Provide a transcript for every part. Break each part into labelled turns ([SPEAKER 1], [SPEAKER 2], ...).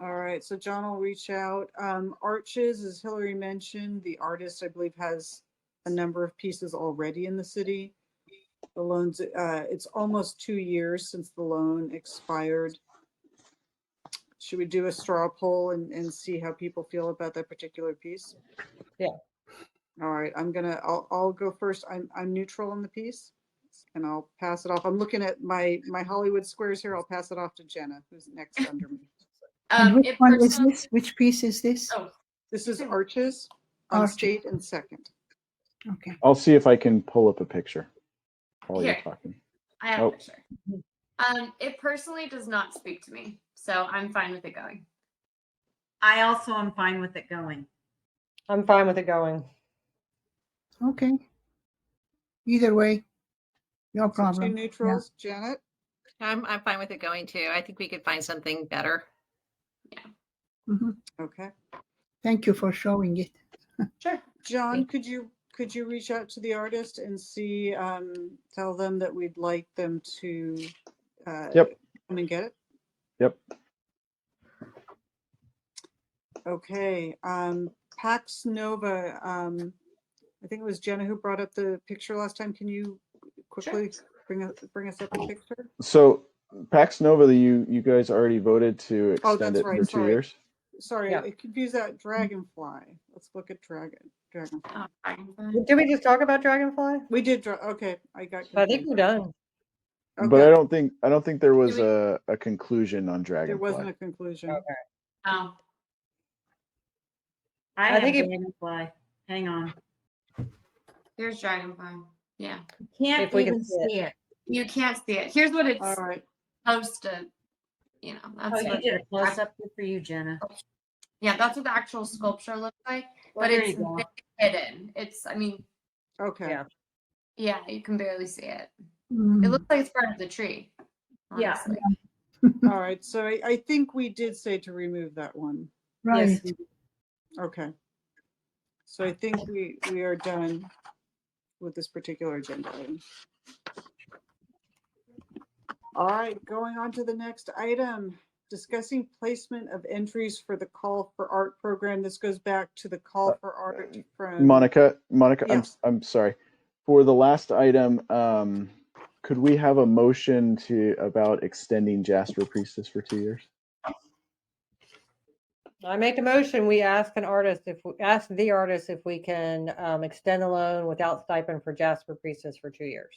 [SPEAKER 1] All right, so John will reach out. Um, Arches, as Hillary mentioned, the artist, I believe, has a number of pieces already in the city. The loans, uh, it's almost two years since the loan expired. Should we do a straw poll and, and see how people feel about that particular piece?
[SPEAKER 2] Yeah.
[SPEAKER 1] All right, I'm gonna, I'll, I'll go first. I'm, I'm neutral on the piece. And I'll pass it off. I'm looking at my, my Hollywood squares here. I'll pass it off to Jenna, who's next under me.
[SPEAKER 3] Um,
[SPEAKER 4] And which
[SPEAKER 3] it
[SPEAKER 4] one is
[SPEAKER 3] personally-
[SPEAKER 4] this? Which piece is this?
[SPEAKER 3] Oh.
[SPEAKER 1] This is Arches on
[SPEAKER 4] Arches.
[SPEAKER 1] State and Second.
[SPEAKER 4] Okay.
[SPEAKER 5] I'll see if I can pull up a picture while you're
[SPEAKER 3] Here.
[SPEAKER 5] talking.
[SPEAKER 3] I have
[SPEAKER 5] Oh.
[SPEAKER 3] a picture. Um, it personally does not speak to me, so I'm fine with it going.
[SPEAKER 6] I also am fine with it going.
[SPEAKER 2] I'm fine with it going.
[SPEAKER 4] Okay. Either way, no
[SPEAKER 1] So Two
[SPEAKER 4] problem.
[SPEAKER 1] neutrals, Janet.
[SPEAKER 7] I'm, I'm fine with it going too. I think we could find something better.
[SPEAKER 4] Mhm.
[SPEAKER 1] Okay.
[SPEAKER 4] Thank you for showing it.
[SPEAKER 1] John, could you, could you reach out to the artist and see, um, tell them that we'd like them to, uh,
[SPEAKER 5] Yep.
[SPEAKER 1] come and get it?
[SPEAKER 5] Yep.
[SPEAKER 1] Okay, um, Pax Nova, um, I think it was Jenna who brought up the picture last time. Can you quickly bring us, bring us up the picture?
[SPEAKER 5] So Pax Nova, that you you guys already voted to
[SPEAKER 1] Oh,
[SPEAKER 5] extend
[SPEAKER 1] that's
[SPEAKER 5] it
[SPEAKER 1] right,
[SPEAKER 5] for two
[SPEAKER 1] sorry.
[SPEAKER 5] years.
[SPEAKER 1] Sorry,
[SPEAKER 2] Yeah.
[SPEAKER 1] I confused that dragonfly. Let's look at dragon, dragonfly.
[SPEAKER 2] Uh,
[SPEAKER 3] Um, fine with it.
[SPEAKER 2] Did we just talk about Dragonfly?
[SPEAKER 1] We did draw, okay, I got.
[SPEAKER 2] I think
[SPEAKER 1] confused.
[SPEAKER 2] we're done.
[SPEAKER 5] But I
[SPEAKER 1] Okay,
[SPEAKER 5] don't think I don't think there was
[SPEAKER 3] we-
[SPEAKER 5] a, a conclusion on
[SPEAKER 1] There
[SPEAKER 5] Dragonfly.
[SPEAKER 1] wasn't a conclusion.
[SPEAKER 2] Okay.
[SPEAKER 3] Oh,
[SPEAKER 6] I,
[SPEAKER 2] I
[SPEAKER 6] have
[SPEAKER 2] think
[SPEAKER 6] think
[SPEAKER 2] it-
[SPEAKER 6] dragonfly. Hang on.
[SPEAKER 3] here's Dragonfly. Yeah,
[SPEAKER 6] Can't
[SPEAKER 2] If we can
[SPEAKER 6] even
[SPEAKER 2] see it.
[SPEAKER 6] see it.
[SPEAKER 3] you can't see it. Here's what it's
[SPEAKER 1] All right,
[SPEAKER 3] supposed to, you know,
[SPEAKER 6] Oh,
[SPEAKER 3] that's
[SPEAKER 6] you
[SPEAKER 3] what,
[SPEAKER 6] did a close up for you, Jenna.
[SPEAKER 3] yeah, that's what the actual sculpture looks like,
[SPEAKER 6] Well,
[SPEAKER 3] but
[SPEAKER 6] there
[SPEAKER 3] it's
[SPEAKER 6] you go.
[SPEAKER 3] hidden. It's, I mean,
[SPEAKER 1] okay.
[SPEAKER 2] Yeah.
[SPEAKER 3] yeah, you can barely see it. It
[SPEAKER 4] Mm,
[SPEAKER 3] looks like it's part of the tree.
[SPEAKER 6] Mm-hmm. Yeah.
[SPEAKER 3] honestly.
[SPEAKER 1] All right, so I, I think we did say to remove that one.
[SPEAKER 4] Right.
[SPEAKER 1] Okay. So I think we, we are done with this particular agenda item. All right, going on to the next item, discussing placement of entries for the Call for Art program. This goes back to the Call for Art from.
[SPEAKER 5] Monica, Monica, I'm
[SPEAKER 1] Yes.
[SPEAKER 5] I'm sorry. For the last item, um, could we have a motion to about extending Jasper Priestess for two years?
[SPEAKER 2] I make the motion. We ask an artist if we ask the artist if we can um, extend the loan without stipend for Jasper Priestess for two years.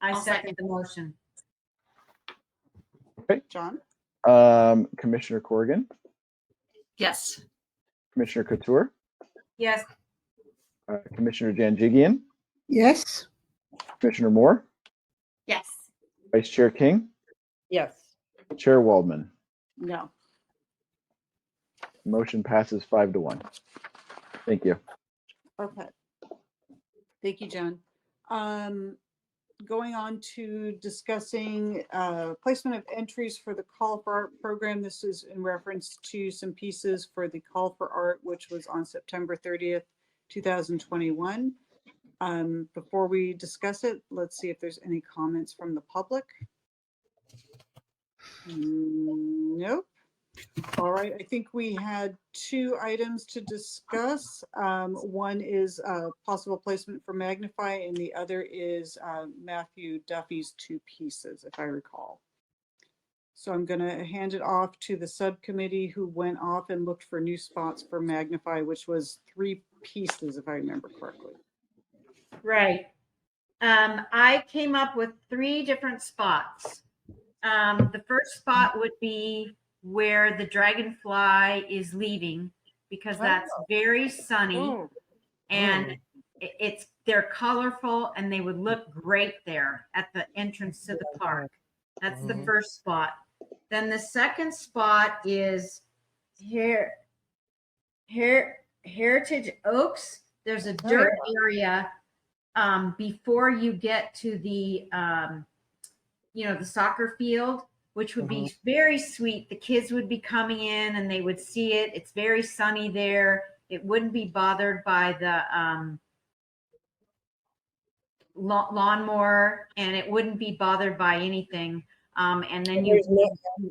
[SPEAKER 6] I
[SPEAKER 3] I'll
[SPEAKER 6] second the motion.
[SPEAKER 1] John?
[SPEAKER 5] Um, Commissioner Corrigan,
[SPEAKER 7] Yes.
[SPEAKER 5] Commissioner Couture,
[SPEAKER 6] Yes.
[SPEAKER 5] uh, Commissioner Janjigian,
[SPEAKER 4] Yes.
[SPEAKER 5] Commissioner Moore,
[SPEAKER 3] Yes.
[SPEAKER 5] Vice Chair King,
[SPEAKER 2] Yes.
[SPEAKER 5] Chair Waldman.
[SPEAKER 1] No.
[SPEAKER 5] Motion passes five to one. Thank you.
[SPEAKER 1] Okay. Thank you, John. Um, going on to discussing, uh, placement of entries for the Call for Art program. This is in reference to some pieces for the Call for Art, which was on September thirtieth, two thousand twenty-one. Um, before we discuss it, let's see if there's any comments from the public. Mm, Nope. All right, I think we had two items to discuss. Um, One is uh, possible placement for Magnify, and the other is uh, Matthew Duffy's two pieces, if I recall. So I'm going to hand it off to the subcommittee who went off and looked for new spots for Magnify, which was three pieces, if I remember correctly.
[SPEAKER 6] Right. Um, I came up with three different spots. Um, the first spot would be where the dragonfly is leaving because that's very sunny
[SPEAKER 1] Oh,
[SPEAKER 6] and i- it's they're colorful and they would look great there at the entrance to the park. That's the
[SPEAKER 2] Mhm.
[SPEAKER 6] first spot. Then the second spot is here, here, Heritage Oaks. There's a
[SPEAKER 2] Oh,
[SPEAKER 6] dirt area um, before you get to the, um, you know, the soccer field, which would be very sweet. The kids would be coming in and they would see it. It's very sunny there. It wouldn't be bothered by the um, lawn lawnmower, and it wouldn't be bothered by anything. Um, and then you
[SPEAKER 2] There's no-